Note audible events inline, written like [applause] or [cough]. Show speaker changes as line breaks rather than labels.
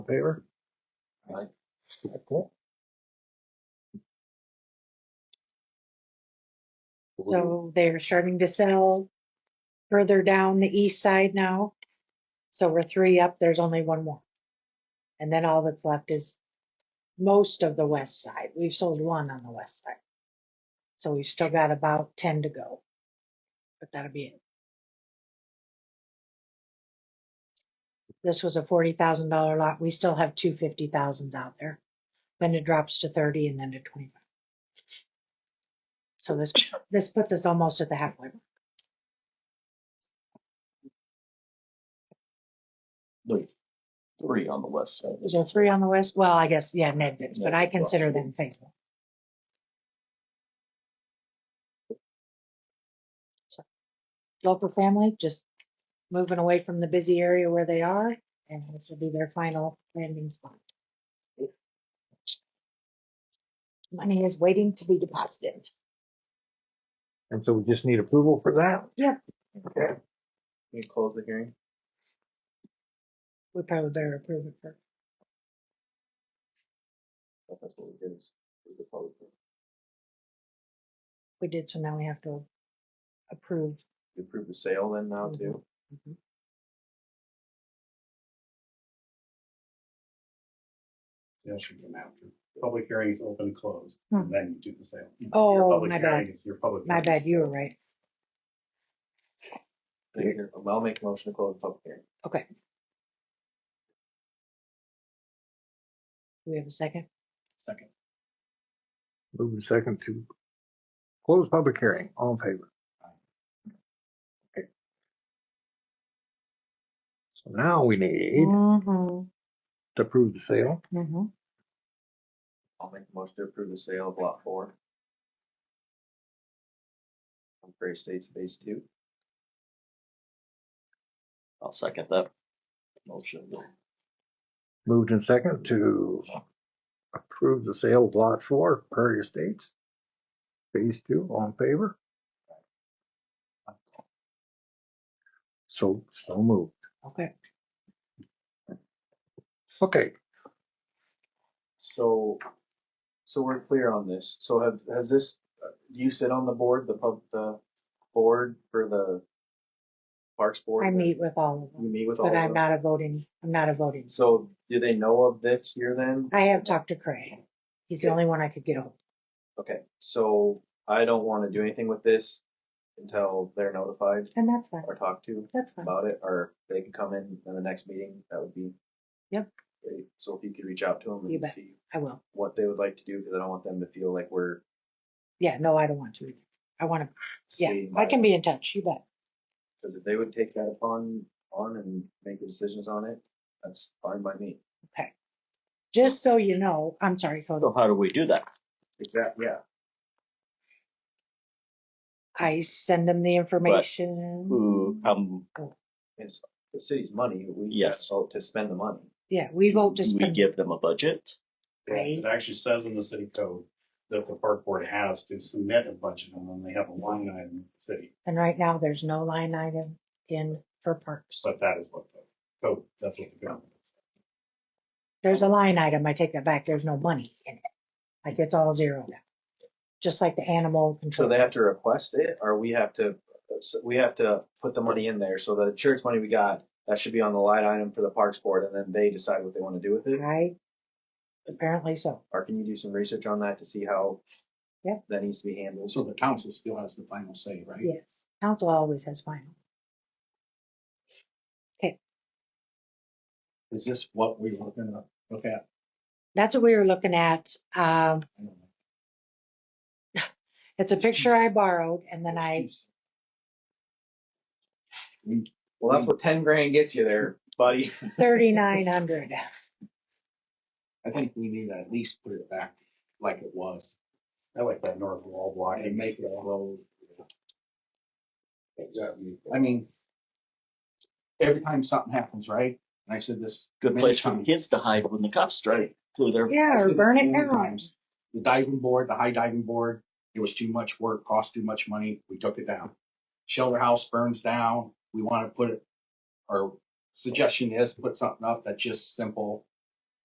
favor?
Aye.
Okay.
So they're starting to sell further down the east side now. So we're three up, there's only one more. And then all that's left is most of the west side. We've sold one on the west side. So we've still got about ten to go. But that'll be it. This was a forty thousand dollar lot. We still have two fifty thousands out there. Then it drops to thirty and then to twenty-five. So this, this puts us almost at the halfway. mark.
There's three on the west side.
Is there three on the west? Well, I guess, yeah, Ned bids, but I
Ned's, well.
consider them faithful. So, Local family, just moving away from the busy area where they are, and this will be their final landing spot. Money is waiting to be deposited.
And so we just need approval for that?
Yeah.
Okay,
Can you close the hearing?
We probably better approve it first.
If That's what we did. is we did public hearing.
We did, so now we have to approve.
You approve the sale then now too?
Mhm.
That should come after. Public hearings open and closed,
Hmm.
and then you do the sale. Your
Oh,
public
my
hearing
bad,
is Your public.
my
notice.
bad, you were right.
Mm-hmm.
Okay, here, I'll make a motion to close the public hearing.
Okay. Do we have a second?
Second.
move in second to close public hearing, all in favor? Okay. So now we need
Mm-hmm.
to approve the sale.
Mm-hmm.
I'll make a motion to approve the sale of lot four. On Prairie States Phase Two. I'll second that. Motion.
Moved in second to approve the sale of lot four, Prairie Estates. Phase two, all in favor? So, so moved.
Okay.
Okay,
So, so we're clear on this. So have, has this, uh, do you sit on the board, the pub, the board for the Parks Board?
I meet with all of
You
them,
meet with all
but I'm
of them?
not a voting, I'm not a voting.
So do they know of this here then?
I have talked to Craig. He's the only one I could get hold.
Okay, so I don't want to do anything with this until they're notified
And that's fine,
or talked to
that's fine.
about it, or they can come in in the next meeting, that would be.
Yep.
great. So if you could reach out to them
You
and
bet.
see
I will.
what they would like to do, because I don't want them to feel like we're.
Yeah, no, I don't want to. either. I want to, yeah,
stating
I
my-
can be in touch, you bet.
Because if they would take that upon, on and make the decisions on it, that's fine by me.
Just so you know, I'm sorry, Cody.
So how do we do that?
Exactly, yeah.
I send them the information.
Who
hmm.
um, come,
It's the city's money, we.
Yes.
Vote to spend the money.
Yeah, we vote to
we
spend.
give them a budget?
Yeah, It actually says in the city code that the park board has to submit a budget, and then they have a line item in the city,
And right now, there's no line item in for parks.
but that is what the code, that's what the government is.
There's a line item, I take that back, there's no money in it. Like, it's all zero now. Just like the animal
So
control.
they have to request it, or we have to, we have to put the money in there, so the insurance money we got, that should be on the line item for the parks board, and then they decide what they want to do with it?
I, apparently so.
Or can you do some research on that to see how?
Yeah.
That needs to be handled?
So the council still has the final say, right?
Yes, council always has final.
Is this what we were gonna look at?
That's what we were looking at. Um,
I don't know.
it's a picture I borrowed and then I,
Well,
Mm.
that's what ten grand gets you there, buddy.
thirty-nine hundred.
I think we need to at least put it back like it was
I like that north wall block.
and make it low. I mean, every time something happens, right? And I said this.
[laughs]
Good
many
place for the
times,
kids to hide when the cops drive through there.
Yeah,
I said
or
this
burn it
many
down.
times. The diving board, the high diving board, it was too much work, cost too much money. We took it down. Shelter house burns down. We want to put it, our suggestion is put something up that's just simple